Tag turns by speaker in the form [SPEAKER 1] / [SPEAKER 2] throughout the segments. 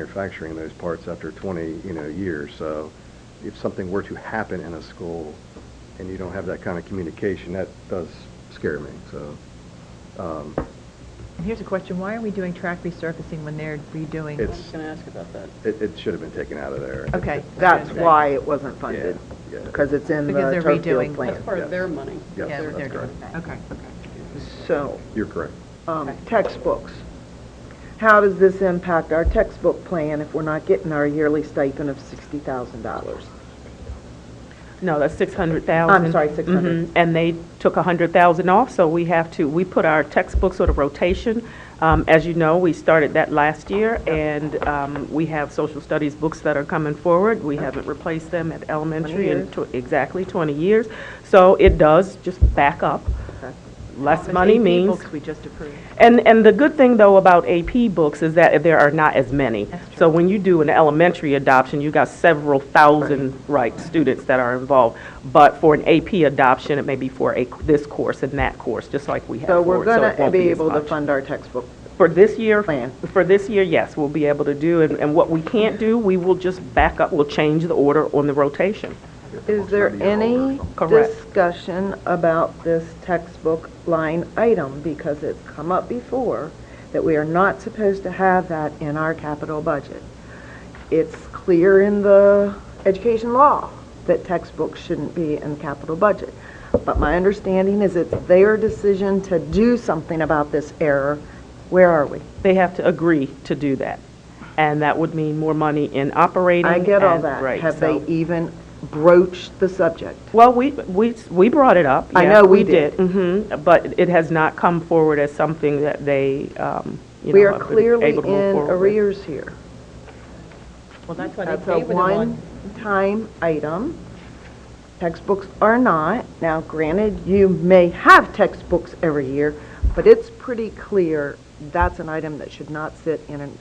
[SPEAKER 1] manufacturing those parts after 20, you know, years. So if something were to happen in a school and you don't have that kind of communication, that does scare me, so. um,
[SPEAKER 2] And here's a question, why are we doing track resurfacing when they're redoing?
[SPEAKER 3] I was
[SPEAKER 1] It's,
[SPEAKER 3] going to ask about that.
[SPEAKER 1] it, it should have been taken out of there.
[SPEAKER 2] Okay.
[SPEAKER 4] That's
[SPEAKER 2] Okay.
[SPEAKER 4] why it wasn't funded,
[SPEAKER 1] Yeah, yeah.
[SPEAKER 4] because it's in the
[SPEAKER 2] Because they're
[SPEAKER 4] turf
[SPEAKER 2] redoing-
[SPEAKER 4] field
[SPEAKER 3] That's
[SPEAKER 4] plan.
[SPEAKER 3] part of their money.
[SPEAKER 1] Yes,
[SPEAKER 2] Yeah,
[SPEAKER 1] that's
[SPEAKER 2] they're doing
[SPEAKER 1] correct.
[SPEAKER 2] that. Okay, okay.
[SPEAKER 4] So,
[SPEAKER 1] You're correct.
[SPEAKER 4] um, textbooks. How does this impact our textbook plan if we're not getting our yearly stipend of $60,000?
[SPEAKER 5] No, that's 600,000.
[SPEAKER 4] I'm sorry, 600.
[SPEAKER 5] Mhm, And they took 100,000 off, so we have to, we put our textbook sort of rotation. Um, As you know, we started that last year, and um, we have social studies books that are coming forward. We haven't replaced them at elementary in, tw- exactly, 20 years. So it does just back up. Less
[SPEAKER 2] The
[SPEAKER 5] money
[SPEAKER 2] AP
[SPEAKER 5] means
[SPEAKER 2] books we just approved.
[SPEAKER 5] and, and the good thing, though, about AP books is that there are not as many. So when you do an elementary adoption, you got several thousand, right, students that are involved. But for an AP adoption, it may be for a, this course and that course, just like we have
[SPEAKER 4] So
[SPEAKER 5] for
[SPEAKER 4] we're
[SPEAKER 5] it, so
[SPEAKER 4] going
[SPEAKER 5] it
[SPEAKER 4] to
[SPEAKER 5] won't
[SPEAKER 4] be
[SPEAKER 5] as
[SPEAKER 4] able to
[SPEAKER 5] much.
[SPEAKER 4] fund our textbook.
[SPEAKER 5] For this year,
[SPEAKER 4] Plan.
[SPEAKER 5] for this year, yes, we'll be able to do, and, and what we can't do, we will just back up, we'll change the order on the rotation.
[SPEAKER 4] Is there any
[SPEAKER 5] Correct.
[SPEAKER 4] discussion about this textbook line item? Because it's come up before that we are not supposed to have that in our capital budget. It's clear in the education law that textbooks shouldn't be in the capital budget. But my understanding is it's their decision to do something about this error. Where are we?
[SPEAKER 5] They have to agree to do that. And that would mean more money in operating.
[SPEAKER 4] I get all
[SPEAKER 5] and-
[SPEAKER 4] that.
[SPEAKER 5] right,
[SPEAKER 4] Have they
[SPEAKER 5] so-
[SPEAKER 4] even broached the subject?
[SPEAKER 5] Well, we, we, we brought it up.
[SPEAKER 4] I
[SPEAKER 5] yeah,
[SPEAKER 4] know we did.
[SPEAKER 5] hmm but it has not come forward as something that they, um, you know.
[SPEAKER 4] We are
[SPEAKER 5] have been
[SPEAKER 4] clearly
[SPEAKER 5] able to move
[SPEAKER 4] in
[SPEAKER 5] forward with.
[SPEAKER 4] arrears here.
[SPEAKER 2] Well, that's why
[SPEAKER 4] That's a one-time item. Textbooks are not. Now, granted, you may have textbooks every year, but it's pretty clear that's an item that should not sit in an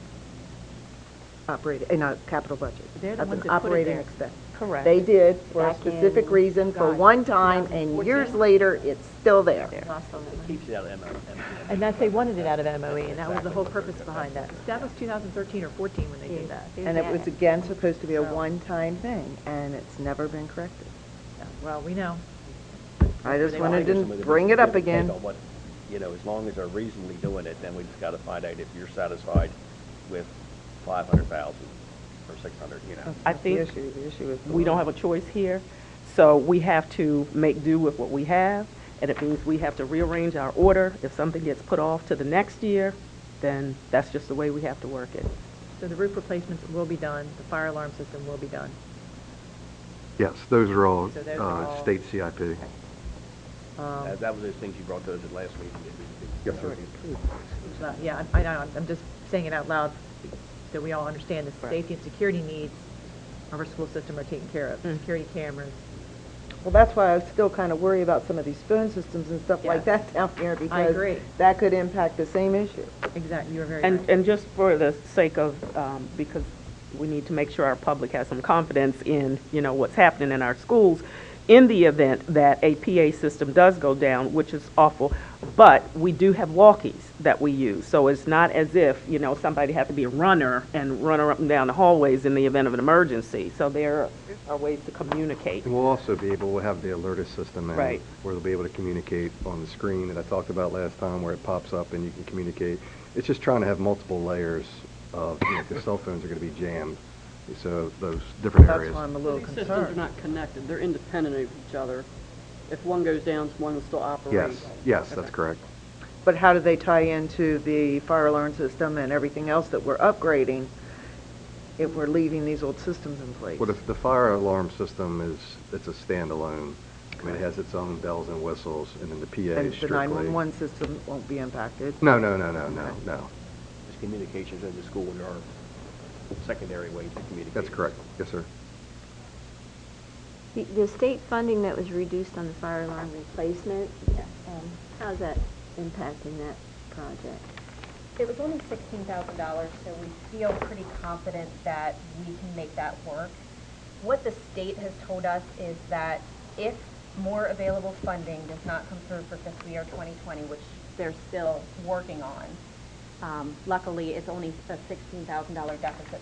[SPEAKER 4] operating, in a capital budget.
[SPEAKER 2] They're the
[SPEAKER 4] That's
[SPEAKER 2] ones
[SPEAKER 4] an
[SPEAKER 2] that put it
[SPEAKER 4] operating
[SPEAKER 2] there.
[SPEAKER 4] expense.
[SPEAKER 5] Correct.
[SPEAKER 4] They did for a
[SPEAKER 2] Back in,
[SPEAKER 4] specific reason, for
[SPEAKER 2] God,
[SPEAKER 4] one time, and years
[SPEAKER 2] 2014.
[SPEAKER 4] later, it's still there.
[SPEAKER 6] Keeps it out of MO.
[SPEAKER 2] And that, they wanted it out of MOE, and that was the whole purpose behind that. That was 2013 or 14 when they did that.
[SPEAKER 4] And it was, again, supposed to be a one-time thing, and it's never been corrected.
[SPEAKER 2] Well, we know.
[SPEAKER 4] I just
[SPEAKER 2] They
[SPEAKER 4] wanted
[SPEAKER 6] I think
[SPEAKER 4] to
[SPEAKER 6] some of the
[SPEAKER 4] bring it
[SPEAKER 6] people
[SPEAKER 4] up again.
[SPEAKER 6] depend on what- You know, as long as they're reasonably doing it, then we just gotta find out if you're satisfied with five hundred thousand or six hundred, you know.
[SPEAKER 5] I
[SPEAKER 4] That's
[SPEAKER 5] think
[SPEAKER 4] The issue, the issue is. the
[SPEAKER 5] We don't
[SPEAKER 4] law.
[SPEAKER 5] have a choice here, so we have to make do with what we have, and it means we have to rearrange our order. If something gets put off to the next year, then that's just the way we have to work it.
[SPEAKER 2] So the roof replacements will be done, the fire alarm system will be done.
[SPEAKER 1] Yes, those are all
[SPEAKER 2] So those
[SPEAKER 1] uh,
[SPEAKER 2] are all-
[SPEAKER 1] state CIP.
[SPEAKER 2] Um,
[SPEAKER 6] That that was those things you brought to us at last meeting. that we-
[SPEAKER 1] Yes, sir.
[SPEAKER 2] Well, Yeah, I I know, I'm- I'm just saying it out loud, that we all understand the safety and security needs of our school system are taken care of, security cameras.
[SPEAKER 4] Well, that's why I still kind of worry about some of these spoon systems and stuff like
[SPEAKER 2] Yeah.
[SPEAKER 4] that down here
[SPEAKER 2] agree.
[SPEAKER 4] because that could impact the same issue.
[SPEAKER 2] Exactly, you were very
[SPEAKER 5] And, and just for the sake of, um, because we need to make sure our public has some confidence in, you know, what's happening in our schools, in the event that a PA system does go down, which is awful, but we do have walkies that we use. So it's not as if, you know, somebody had to be a runner and run up and down the hallways in the event of an emergency. So there are ways to communicate.
[SPEAKER 1] And we'll also be able, we'll have the alertist system in.
[SPEAKER 5] Right.
[SPEAKER 1] Where they'll be able to communicate on the screen that I talked about last time, where it pops up and you can communicate. It's just trying to have multiple layers of, you know, 'cause cell phones are gonna be jammed, so those different
[SPEAKER 4] That's
[SPEAKER 1] areas.
[SPEAKER 4] why I'm a little
[SPEAKER 3] These systems are
[SPEAKER 4] concerned.
[SPEAKER 3] not connected, they're independent of each other. If one goes down, one will still operate.
[SPEAKER 1] Yes, yes, that's correct.
[SPEAKER 4] But how do they tie into the fire alarm system and everything else that we're upgrading if we're leaving these old systems in place?
[SPEAKER 1] Well, if the fire alarm system is, it's a standalone, I mean, it has its own bells and whistles, and then the PA
[SPEAKER 4] And
[SPEAKER 1] is
[SPEAKER 4] the
[SPEAKER 1] strictly.
[SPEAKER 4] 911 system won't be impacted.
[SPEAKER 1] No, no, no, no, no, no.
[SPEAKER 6] Just communications in the school and our secondary ways to communicate.
[SPEAKER 1] That's correct. Yes, sir.
[SPEAKER 7] The- The state funding that was reduced on the fire alarm replacement, um, how's that impacting that project?
[SPEAKER 8] It was only sixteen thousand dollars, so we feel pretty confident that we can make that work. What the state has told us is that if more available funding does not come through for fiscal year twenty twenty, which they're still working on, Um, Luckily, it's only a $16,000 deficit